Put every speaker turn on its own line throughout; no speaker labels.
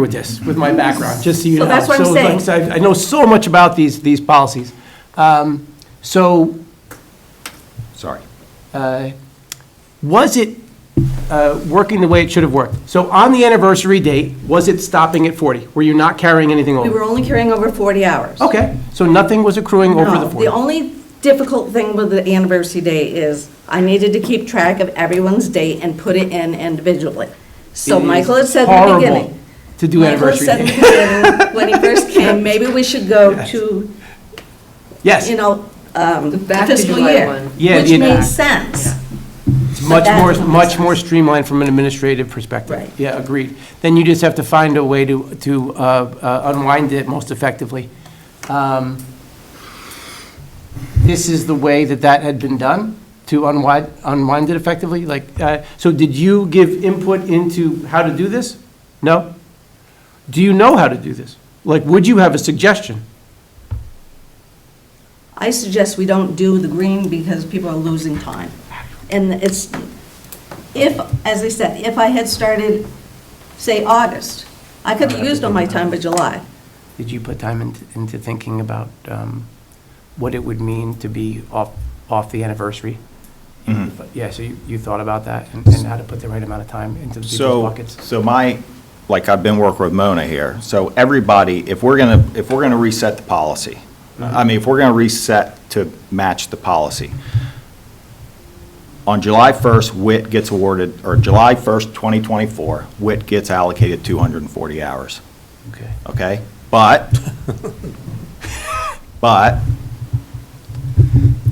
with this, with my background, just so you
So
know.
that's what I'm
So,
saying.
like, I I know so much about these, these policies. Um, So
Sorry.
uh, was it uh, working the way it should have worked? So on the anniversary date, was it stopping at 40? Were you not carrying anything
We
over?
were only carrying over 40 hours.
Okay, so nothing was accruing over
No,
the
the
40?
only difficult thing with the anniversary day is I needed to keep track of everyone's date and put it in individually. So
It is
Michael had said in the
horrible
beginning.
to do anniversary
Michael had said in the beginning, when he first came, maybe we should go to,
Yes,
you know, um,
back to
fiscal
July
year.
one.
Yeah,
Which
the-
made sense.
it's much
that
more,
doesn't make
much
sense.
more streamlined from an administrative perspective.
Right.
Yeah, agreed. Then you just have to find a way to, to uh, uh, unwind it most effectively. Um, This is the way that that had been done, to unwind, unwind it effectively? Like, uh, so did you give input into how to do this? No? Do you know how to do this? Like, would you have a suggestion?
I suggest we don't do the green because people are losing time. And it's, if, as I said, if I had started, say, August, I could have used all my time by July.
Did you put time into, into thinking about um, what it would mean to be off, off the anniversary? Yeah, so you, you thought about that and and how to put the right amount of time into the people's
So,
pockets?
so my, like, I've been working with Mona here, so everybody, if we're gonna, if we're gonna reset the policy,
Uh-huh.
I mean, if we're gonna reset to match the policy, on July 1st, WIT gets awarded, or July 1st, 2024, WIT gets allocated 240 hours.
Okay.
okay? But, but,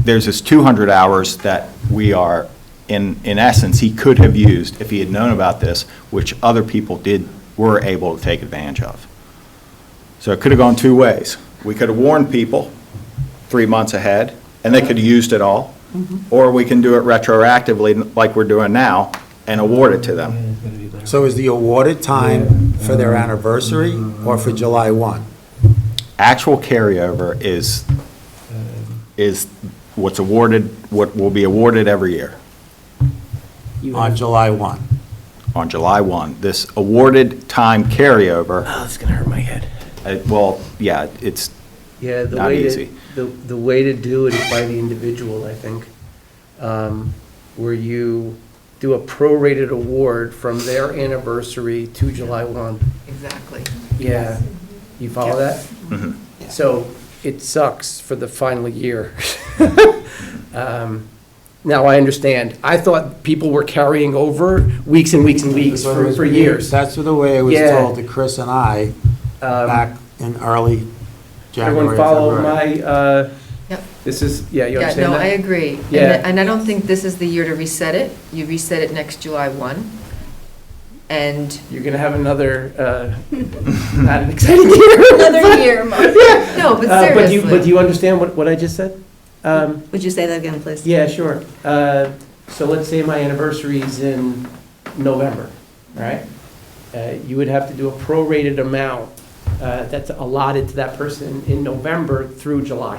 there's this 200 hours that we are, in, in essence, he could have used if he had known about this, which other people did, were able to take advantage of. So it could have gone two ways. We could have warned people three months ahead, and they could have used it all, or we can do it retroactively, like we're doing now, and award it to them.
So is the awarded time for their anniversary or for July 1?
actual carryover is, is what's awarded, what will be awarded every year
You
On
have-
July 1.
on July 1. This awarded time carryover,
Oh, it's gonna hurt my head.
uh, well, yeah, it's,
Yeah, the
Not
way to,
easy.
the, the way to do it is by the individual, I think. Um, Where you do a prorated award from their anniversary to July one.
Exactly.
Yeah, you follow that? So it sucks for the final year. Um, Now, I understand. I thought people were carrying over weeks and weeks and weeks for, for years.
That's the way it was
Yeah.
told to Chris and I
Um,
back in early January,
Everyone follow
February.
my, uh,
Yep.
this is, yeah, you
Yeah,
understand
no,
that?
I agree. And
Yeah.
th- And I don't think this is the year to reset it. You reset it next July 1. And,
You're gonna have another, uh, not an exciting year.
Another year,
no, but
Uh, But you, but do
seriously.
you understand what, what I just said? Um,
Would you say that again, please?
Yeah, sure. Uh, So let's say my anniversary's in November, all right? Uh, You would have to do a prorated amount uh, that's allotted to that person in November through July,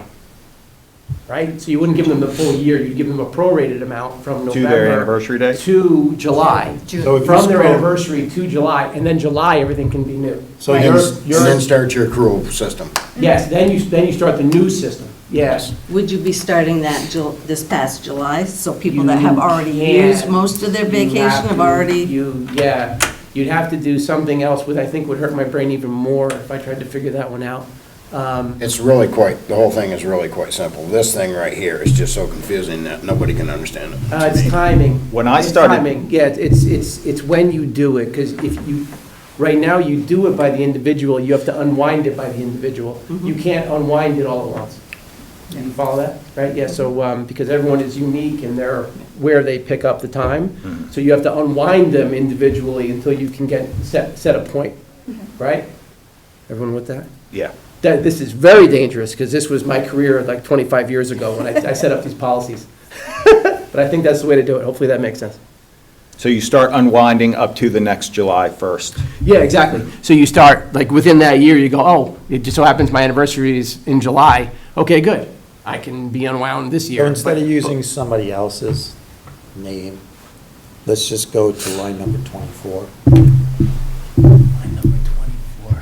right? So you wouldn't give them the full year, you'd give them a prorated amount from
to their
November
anniversary day?
to July,
June.
So if you
from their
scroll-
anniversary to July, and then July, everything can be new.
So
Right.
And
you're-
then- and then start your accrual system.
Yes, then you, then you start the new system, yes.
Would you be starting that Jul, this past July, so people
You
that have already
can't.
used most of their
You
vacation
have
have
to-
already,
You, yeah, you'd have to do something else, which I think would hurt my brain even more if I tried to figure that one out. Um,
It's really quite, the whole thing is really quite simple. This thing right here is just so confusing that nobody can understand it.
uh, It's timing.
When I
It's
started-
timing, yeah, it's, it's, it's when you do it, because if you, right now, you do it by the individual, you have to unwind it by the individual. You can't unwind it all at once. You follow that, right? Yeah, so, um, because everyone is unique in their, where they pick up the
Mm-hmm.
time. So you have to unwind them individually until you can get, set, set a point, right? Everyone with that?
Yeah.
that this is very dangerous, because this was my career like 25 years ago when I, I set up these policies. But I think that's the way to do it. Hopefully that makes sense.
So you start unwinding up to the next July 1st.
Yeah, exactly. So you start, like, within that year, you go, oh, it just so happens my anniversary is in July. Okay, good. I can be unwound this year.
So instead of
But-
using somebody else's name, let's just go to line number 24.